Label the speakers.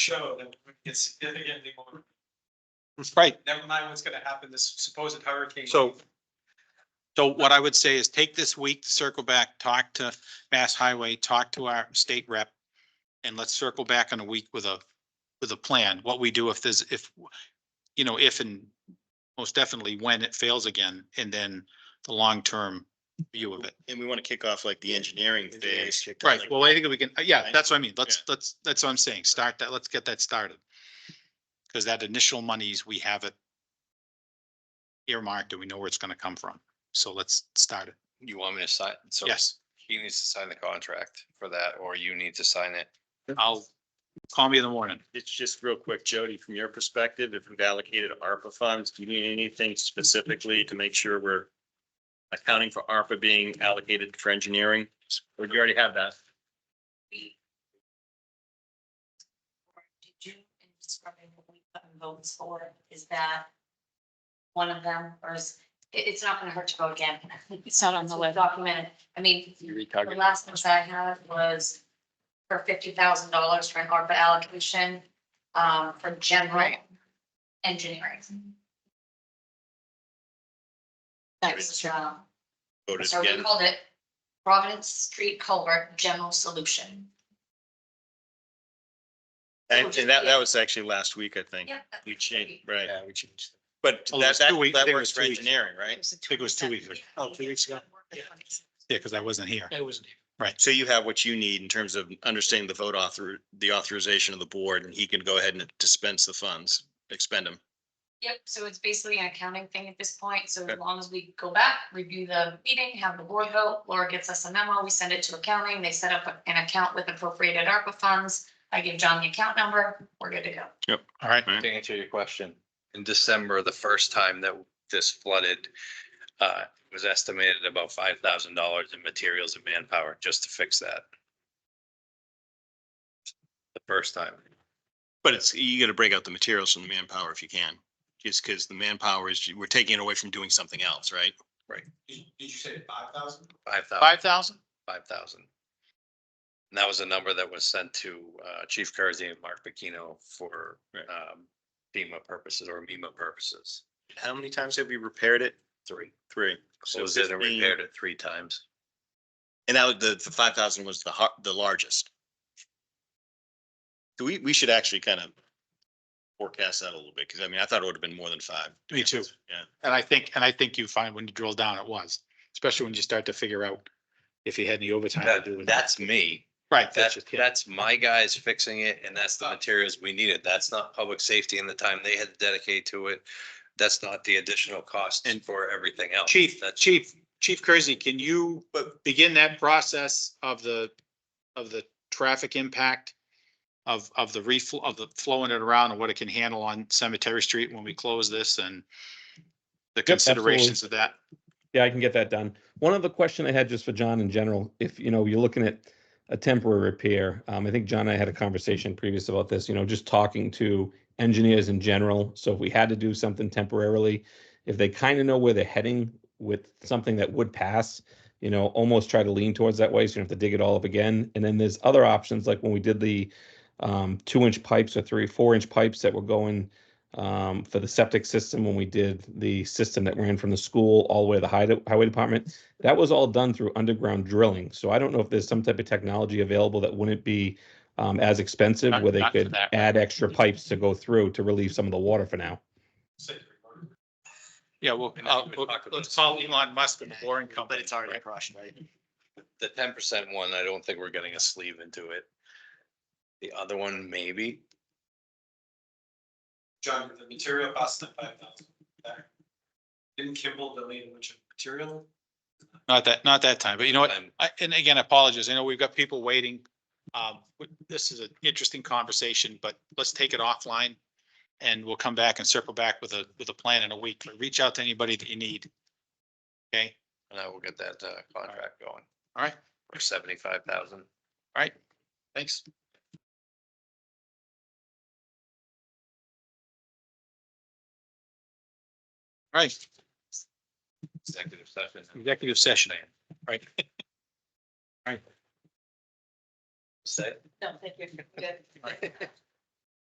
Speaker 1: show that we get significantly more,
Speaker 2: Right,
Speaker 1: never mind what's gonna happen, this supposed hurricane.
Speaker 2: so. So what I would say is take this week, to circle back, talk to Mass Highway, talk to our state rep. And let's circle back in a week with a, with a plan, what we do if there's, if, you know, if and most definitely when it fails again, and then the long-term view of it.
Speaker 3: And we want to kick off like the engineering phase.
Speaker 2: Right, well, I think we can, uh, yeah,
Speaker 3: Right.
Speaker 2: that's what I mean. Let's, let's, that's what I'm saying. Start that, let's get that started. Because that initial monies, we have it earmarked, and we know where it's gonna come from. So let's start it.
Speaker 4: You want me to sign? So
Speaker 2: Yes,
Speaker 4: he needs to sign the contract for that, or you need to sign it.
Speaker 2: I'll, call me in the morning.
Speaker 3: It's just real quick, Jody, from your perspective, if we've allocated ARPA funds, do you need anything specifically to make sure we're accounting for ARPA being allocated for engineering? Or do you already have that?
Speaker 5: Or Did you, in describing what we put in votes for, is that one of them, or is, it, it's not gonna hurt to vote again?
Speaker 6: It's not on
Speaker 5: It's
Speaker 6: the
Speaker 5: well
Speaker 6: list.
Speaker 5: documented, I mean, the last ones I had was for fifty thousand dollars for an ARPA allocation, um, for general
Speaker 6: Right.
Speaker 5: engineering.
Speaker 6: That's
Speaker 5: Um,
Speaker 3: Voted
Speaker 5: So we
Speaker 3: again.
Speaker 5: called it Providence Street Culvert General Solution.
Speaker 3: And and that, that was actually last week, I think.
Speaker 5: Yep.
Speaker 3: We changed, right.
Speaker 2: we changed.
Speaker 3: But
Speaker 2: Oh, it
Speaker 3: that,
Speaker 2: was
Speaker 3: that,
Speaker 2: two weeks. I
Speaker 3: that
Speaker 2: think it
Speaker 3: works
Speaker 2: was
Speaker 3: for
Speaker 2: two weeks.
Speaker 3: engineering, right?
Speaker 2: I think it was two weeks ago.
Speaker 5: Oh, two weeks ago.
Speaker 2: Yeah, because I wasn't here.
Speaker 1: It wasn't.
Speaker 3: So you have what you need in terms of understanding the vote author, the authorization of the board, and he can go ahead and dispense the funds, expend them.
Speaker 5: Yep, so it's basically an accounting thing at this point, so as
Speaker 3: Okay.
Speaker 5: long as we go back, review the meeting, have the board vote, Laura gets us a memo, we send it to accounting, they set up an account with appropriated ARPA funds. I give John the account number, we're good to go.
Speaker 2: All right,
Speaker 4: To answer your question, in December, the first time that this flooded, uh, it was estimated about five thousand dollars in materials and manpower just to fix that. The first time.
Speaker 3: But it's, you gotta break out the materials from the manpower if you can, just because the manpower is, we're taking it away from doing something else, right?
Speaker 1: Did did you say five thousand?
Speaker 4: Five thousand.
Speaker 2: five thousand?
Speaker 4: five thousand. And that was a number that was sent to uh Chief Kersey and Mark Bikino for
Speaker 3: Right.
Speaker 4: um FEMA purposes or MEMA purposes.
Speaker 3: How many times have we repaired it?
Speaker 4: Three,
Speaker 3: Three. So
Speaker 4: closed it and
Speaker 3: 15.
Speaker 4: repaired it three times.
Speaker 3: And that was the, the five thousand was the har- the largest. So we, we should actually kind of forecast that a little bit, because I mean, I thought it would have been more than five.
Speaker 2: Me too.
Speaker 3: Yeah.
Speaker 2: And I think, and I think you find when you drill down, it was, especially when you start to figure out if you had any overtime. to do
Speaker 4: That-
Speaker 2: with-
Speaker 4: that's me.
Speaker 2: Right, that's
Speaker 4: That's
Speaker 2: just, Ah. yeah.
Speaker 4: that's my guys fixing it and that's the materials we needed. That's not public safety and the time they had to dedicate to it. That's not the additional cost
Speaker 2: And-
Speaker 4: for everything else.
Speaker 2: Chief, uh,
Speaker 4: That's
Speaker 2: Chief, Chief Kersey, can you uh, begin that process of the, of the traffic impact? Of, of the reflow, of the flowing it around and what it can handle on Cemetery Street when we close this and the considerations of that?
Speaker 7: Yeah, I can get that done. One other question I had just for John in general, if, you know, you're looking at a temporary repair, um, I think John and I had a conversation previous about this, you know, just talking to engineers in general. So if we had to do something temporarily, if they kind of know where they're heading with something that would pass, you know, almost try to lean towards that way. So you don't have to dig it all up again. And then there's other options, like when we did the um, two inch pipes or three, four inch pipes that were going um, for the septic system when we did the system that ran from the school all the way to the highway, highway department. That was all done through underground drilling. So I don't know if there's some type of technology available that wouldn't be um, as expensive
Speaker 2: Not-
Speaker 7: where they
Speaker 2: not for
Speaker 7: could
Speaker 2: that.
Speaker 7: add extra pipes to go through to relieve some of the water for now.
Speaker 2: Yeah, well,
Speaker 4: And
Speaker 2: uh,
Speaker 4: we would talk about-
Speaker 2: let's call Elon Musk and the boring company. right?
Speaker 3: crushed, right?
Speaker 4: The ten percent one, I don't think we're getting a sleeve into it. The other one, maybe.
Speaker 1: John, the material cost of five thousand. Didn't Kimball delete a bunch of material?
Speaker 2: Not that, not that time, but you know what?
Speaker 4: I'm-
Speaker 2: I, and again, I apologize. I know we've got people waiting. Um, w- this is an interesting conversation, but let's take it offline. And we'll come back and circle back with a, with a plan in a week. But Reach out to anybody that you need. Okay,
Speaker 4: And I will get that uh, contract going
Speaker 2: all right,
Speaker 4: for seventy-five thousand.
Speaker 2: all right. Thanks. All right,
Speaker 4: Executive session.
Speaker 2: executive session.
Speaker 4: Say,
Speaker 5: No, thank you. Good.